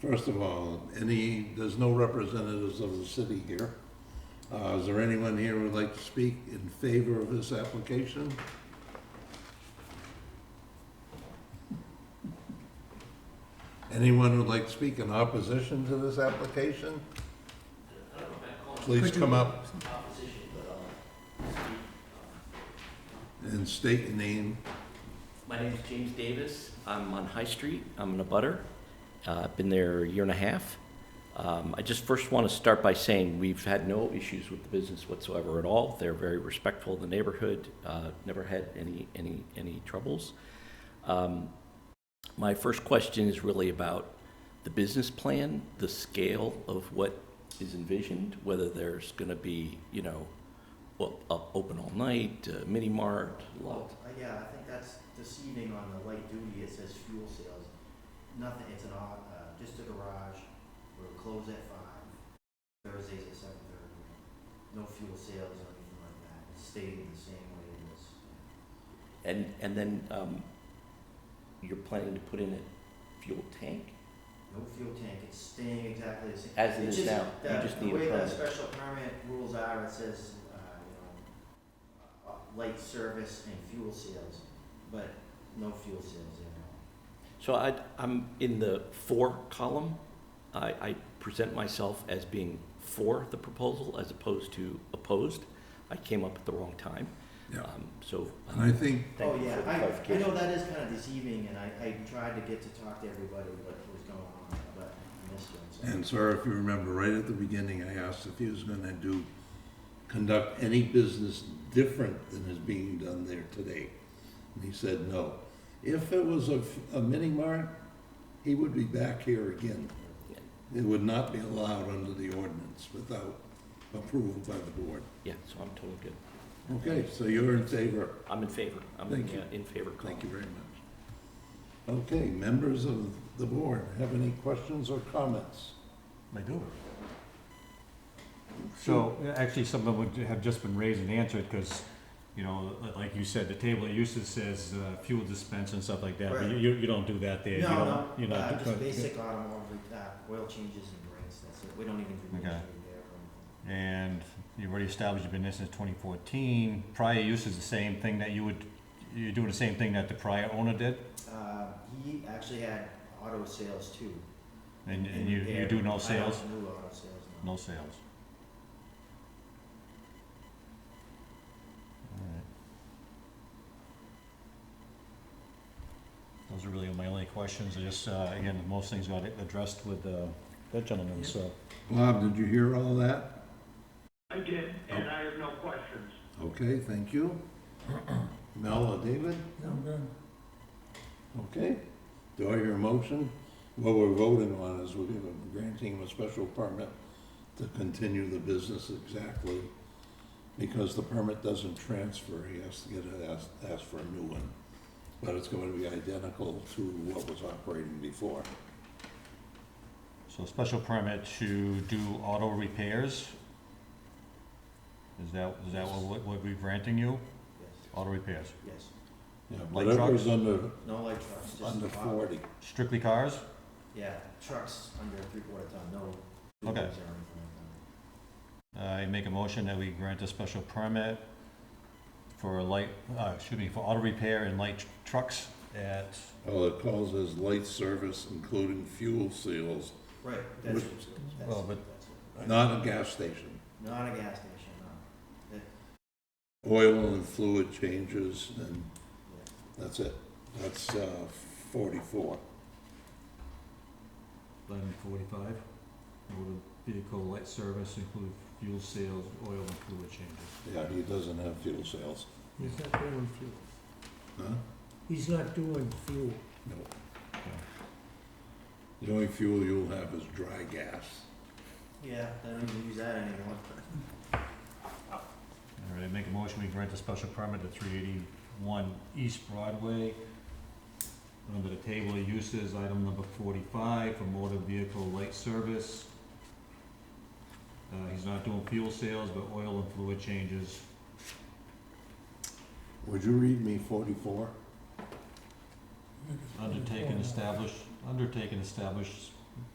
First of all, any, there's no representatives of the city here. Uh, Is there anyone here who would like to speak in favor of this application? Anyone who'd like to speak in opposition to this application? Please come up and state your name. My name is James Davis. I'm on High Street. I'm in a butter. Uh, I've been there a year and a half. Um, I just first want to start by saying we've had no issues with the business whatsoever at all. They're very respectful of the neighborhood. Uh, never had any any any troubles. Um, my first question is really about the business plan, the scale of what is envisioned, whether there's going to be you know, well, up, open all night, uh, mini mart, lot. Well, uh, yeah, I think that's deceiving on the light duty, it says fuel sales. Nothing, it's an, au- uh, just a garage, we're closed at five, Thursdays at seven thirty. No fuel sales or anything like that, it's staying the same way it is. And, and then, um, you're planning to put in a fuel tank? No fuel tank, it's staying exactly the same. As it It's is just now, you that- just need a The way the permit. special permit rules are, it says, uh, you know, uh, light service and fuel sales, but no fuel sales at all. So I, I'm in the for column. I, I present myself as being for the proposal as opposed to opposed. I came up at the wrong time. Yeah. Um, So. um, And I think thank Oh, you yeah, for the I, I know clarification. that is kind of deceiving, and I, I tried to get to talk to everybody what was going on, but I missed you. And sir, if you remember, right at the beginning, I asked if he was gonna do, conduct any business different than is being done there today. And he said no. If it was a, f- a mini mart, he would be back here again. It would not be allowed under the ordinance without approval by the board. Yeah, so I'm totally good. Okay, so you're in favor. I'm in favor. I'm in, Thank you. the, uh, in favor column. Thank you very much. Okay, members of the board, have any questions or comments? I do. So, actually, some of them would have just been raised and answered, because, you know, li- like you said, the table of uses says uh, fuel dispense and stuff like that, but Right. you- you, you don't do that there. You No, don't- no, you're not uh, do- just basic automobile, uh, oil changes and brakes, that's it, we don't even do Okay. anything there. or anything. And you've already established you've been there since twenty fourteen, prior use is the same thing that you would, you're doing the same thing that the prior owner did, Uh, he actually had auto sales too. and, and in you, you there. do I no don't sales? do auto sales, no. No sales. Alright. Those are really my only questions, I just, uh, again, most things got addressed with, uh, that gentleman, so. Bob, did you hear all that? I did, and I have no questions. Okay, thank you. Mel or David? Okay, do I hear a motion? What we're voting on is we're giving, granting him a special permit to continue the business exactly, because the permit doesn't transfer, he has to get it, ask, ask for a new one. But it's going to be identical to what was operating before. So special permit to do auto repairs? Is that, is that what, what we're granting you? Yes, Auto repairs, yes, Yeah, Like Whatever's trucks? under, no light trucks, just. under auto- forty. strictly cars? Yeah, trucks under three quarter ton, no. Okay. vehicles or anything like that. I make a motion that we grant a special permit for light, uh, excuse me, for auto repair and light trucks at, All it calls is light service, including fuel seals, Right, that's, Which- that's, Well, but- that's it. not a gas station. Not a gas station, no. Oil and fluid changes, and Yeah. that's it. That's uh, 44. Eleven forty-five, motor vehicle light service include fuel sales, oil and fluid changes. Yeah, he doesn't have fuel sales. He's not doing fuel. Huh? He's not doing fuel. No. The only fuel you'll have is dry gas. Yeah, I don't even use that anymore. All right, I make a motion, we grant a special permit at three eighty-one East Broadway. Under the table of uses, item number forty-five, for motor vehicle light service. Uh, he's not doing fuel sales, but oil and fluid changes. Would you read me 44? Undertaken, established, undertaken, established